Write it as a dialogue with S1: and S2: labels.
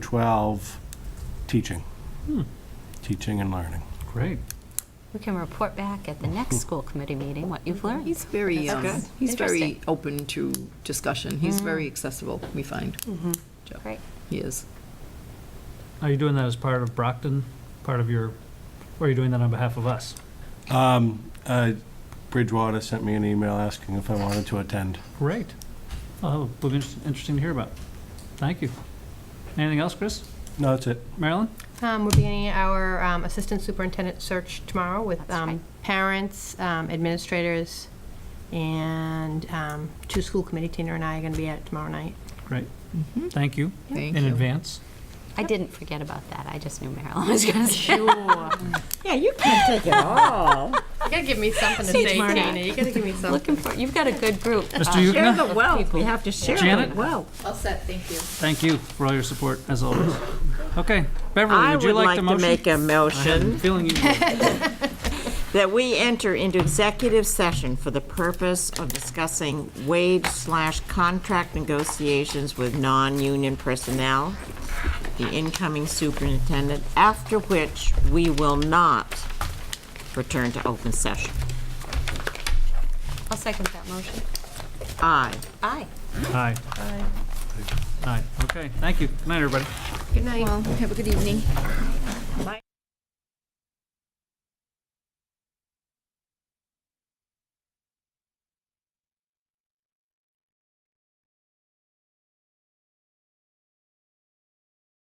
S1: 12 teaching, teaching and learning.
S2: Great.
S3: We can report back at the next school committee meeting what you've learned.
S4: He's very,
S3: That's
S4: um,
S3: good.
S4: he's very
S3: Interesting. Mm.
S4: open to discussion. He's very accessible, we find. Joe.
S3: Great.
S4: He is.
S2: Are you doing that as part of Brockton, part of your, or are you doing that on behalf of us?
S1: Um, uh, Bridgewater sent me an email asking if I wanted to attend.
S2: Great. Oh, it'll be inter- interesting to hear about. Thank you. Anything else, Chris?
S1: No, that's it.
S2: Marilyn?
S5: Um, We're beginning our um, assistant superintendent search tomorrow with
S3: That's right.
S5: um, parents, um, administrators, and um, two school committee, Tina and I are going to be at it tomorrow night.
S2: Great.
S6: Mm-hmm.
S2: Thank you
S4: Thank
S2: in
S4: you.
S2: advance.
S3: I didn't forget about that. I just knew Marilyn was going to say.
S6: Yeah, you can't take it all.
S5: You gotta give me something to
S3: See you say, tomorrow night. Tina.
S5: You gotta give me something.
S3: Looking for, you've got a good group.
S2: Mr.
S3: uh,
S2: Yukna?
S6: Share the wealth. We
S3: People.
S6: have to share
S2: Janet?
S6: the wealth.
S4: All set, thank you.
S2: Thank you for all your support, as always. Okay, Beverly,
S6: I
S2: Oh, would you
S6: would
S2: like
S6: like
S2: the
S6: to
S2: motion? Uh-huh.
S6: make a
S2: I'm
S6: motion
S2: feeling you.
S6: that we enter into executive session for the purpose of discussing wage slash contract negotiations with non-union personnel, the incoming superintendent, after which we will not return to open session.
S3: I'll second that motion.
S6: Aye.
S3: Aye.
S2: Aye. Aye. Okay, thank you. Good night, everybody.
S5: Good night.
S4: Have a good evening.